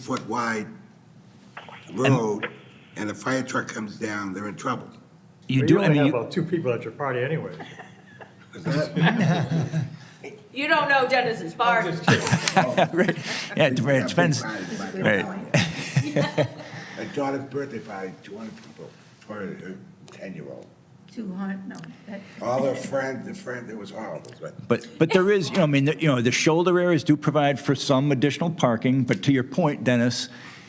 foot wide road and a fire truck comes down, they're in trouble. You But do, I only mean, have you- about two people at your party anyway. Is that- You don't know Dennis's bar. right, yeah, it it depends. Right. My daughter's birthday party, two hundred people, for her ten-year-old. Two hundred, no. that- All her friends, the friend, it was horrible, but But, but there is, you know, I mean, you know, the shoulder areas do provide for some additional parking, but to your point, Dennis,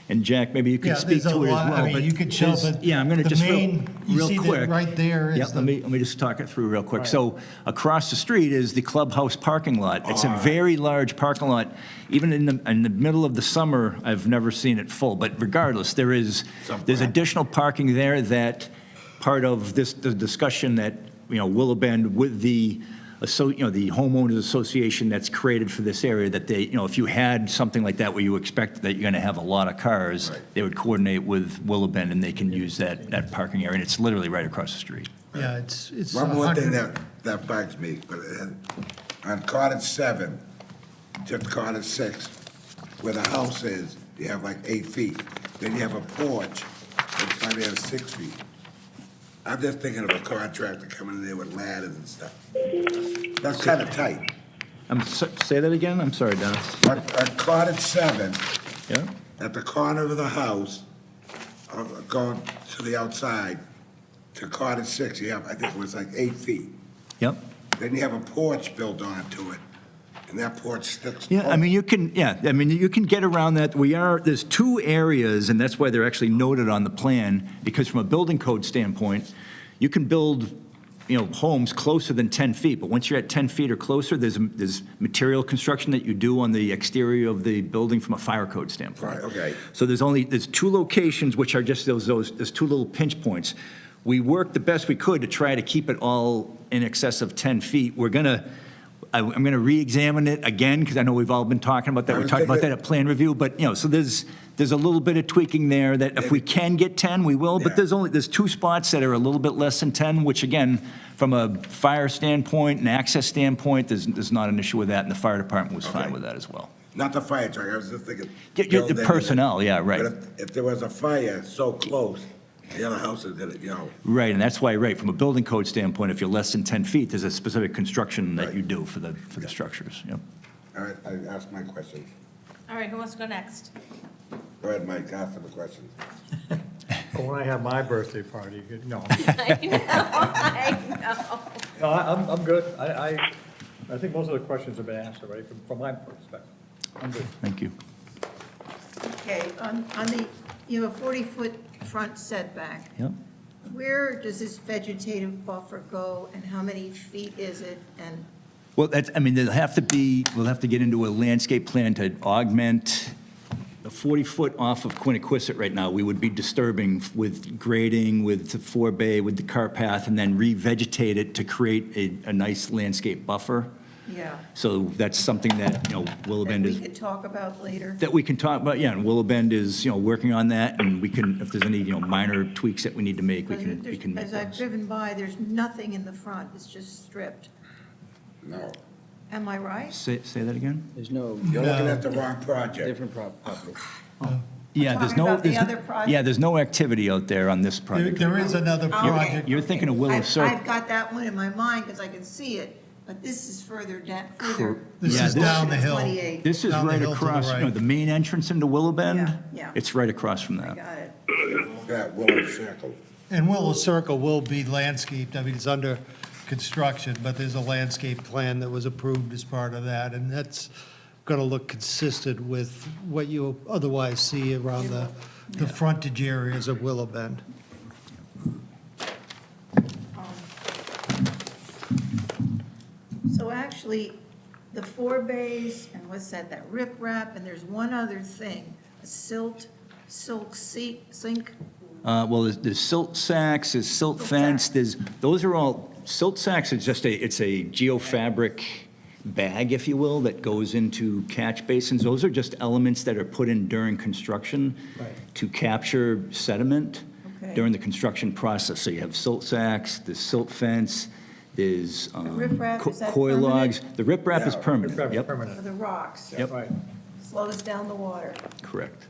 and Jack, maybe you Yeah, could speak there's to a it as well. lot- I mean, but you could show, there's- but Yeah, I'm going to the just real, main- you real see that quick. right there is Yeah, the- let me, let me just talk it through real quick. So across the street is the clubhouse parking lot. It's a very large parking lot. Even in the, in the middle of the summer, I've never seen it full, but regardless, there is, there's additional parking there that part of this, the discussion that, you know, Willow Bend with the, so, you know, the homeowners association that's created for this area, that they, you know, if you had something like that where you expect that you're going to have a lot of cars, they would coordinate with Willow Bend and they can use that, that parking area. And it's literally right across the street. Yeah, it's, it's. one more thing 100 that, that bugs me, but it- on Cottage seven, to Cottage six, where the house is, you have like eight feet. Then you have a porch, and probably have six feet. I'm just thinking of a contractor coming in there with ladders and stuff. That's kind of tight. I'm, so- say that again? I'm sorry, Dennis. On on Cottage seven, Yeah? at the corner of the house, uh, going to the outside, to Cottage six, you have, I think it was like eight feet. Yep. Then you have a porch built onto it, and that porch sticks. Yeah, I mean, you can, yeah, I mean, you can get around that. We are, there's two areas, and that's why they're actually noted on the plan, because from a building code standpoint, you can build, you know, homes closer than 10 feet, but once you're at 10 feet or closer, there's, there's material construction that you do on the exterior of the building from a fire code standpoint. Right, okay. So there's only, there's two locations, which are just those, those, there's two little pinch points. We worked the best we could to try to keep it all in excess of 10 feet. We're gonna, I- I'm gonna re-examine it again, because I know we've all been talking about that. I We was talked about thinking- that at plan review, but, you know, so there's, there's a little bit of tweaking there that if we can get 10, we will, Yeah. but there's only, there's two spots that are a little bit less than 10, which again, from a fire standpoint and access standpoint, there's, there's not an issue with that, and the fire department was fine Okay. with that as well. Not the fire truck, I was just thinking. Yeah, yeah, the building. personnel, yeah, right. But if, if there was a fire so close, the other houses did it, you know, Right, and that's why, right, from a building code standpoint, if you're less than 10 feet, there's a specific construction that you do for the, for the structures, yep. all right, I asked my question. All right, who wants to go next? Go ahead, Mike, ask him a question. But when I have my birthday party, you- no, I know, I know. No, I- I'm, I'm good. I, I, I think most of the questions have been answered, right, from, from my perspective. I'm good. Thank you. Okay, on, on the, you have a forty-foot front setback. Yep. Where does this vegetative buffer go and how many feet is it? And Well, that's, I mean, there'll have to be, we'll have to get into a landscape plan to augment the 40-foot off of Quiniquisette right now. We would be disturbing with grading, with the forebay, with the car path, and then revegetate it to create a, a nice landscape buffer. Yeah. So that's something that, you know, Willow that Bend we is could talk about later. that we can talk about, yeah, and Willow Bend is, you know, working on that, and we can, if there's any, you know, minor tweaks that we need to make, we can, we can make As I've those. driven by, there's nothing in the front, it's just stripped. No, Am I right? Say, say that again? There's no you're looking at the wrong project. different prop- property. Yeah, there's talking no. about the there's- other project. Yeah, there's no activity out there on this There- project. There is another project. You're thinking of Willow I've, I've Circle. got that one in my mind because I can see it, but this is further down, further. This Yeah, is this- down the hill. 28. This is Down the right hill to the across, you know, right. the main entrance into Willow Bend. Yeah, yeah. It's right across from that. Got it. That Willow Circle. And Willow Circle will be landscaped, I mean, it's under construction, but there's a landscape plan that was approved as part of that, and that's gonna look consistent with what you otherwise see around the, the frontage areas of Willow Bend. Um, So actually, the four bays, and what's that, that riprap, and there's one other thing, a silt, silk seat, sink? Uh, well, there's, there's silt sacks, there's silt Silt fence, sack. there's, those are all, silt sacks is just a, it's a geofabric bag, if you will, that goes into catch basins. Those are just elements that are put in during construction to capture sediment Okay. during the construction process. So you have silt sacks, there's silt fence, there's um, riprap, co- is that coy permanent? logs. The riprap is Yeah, permanent, Grab it yep, For permanent, the rocks, Yep. right. slows down the water. correct.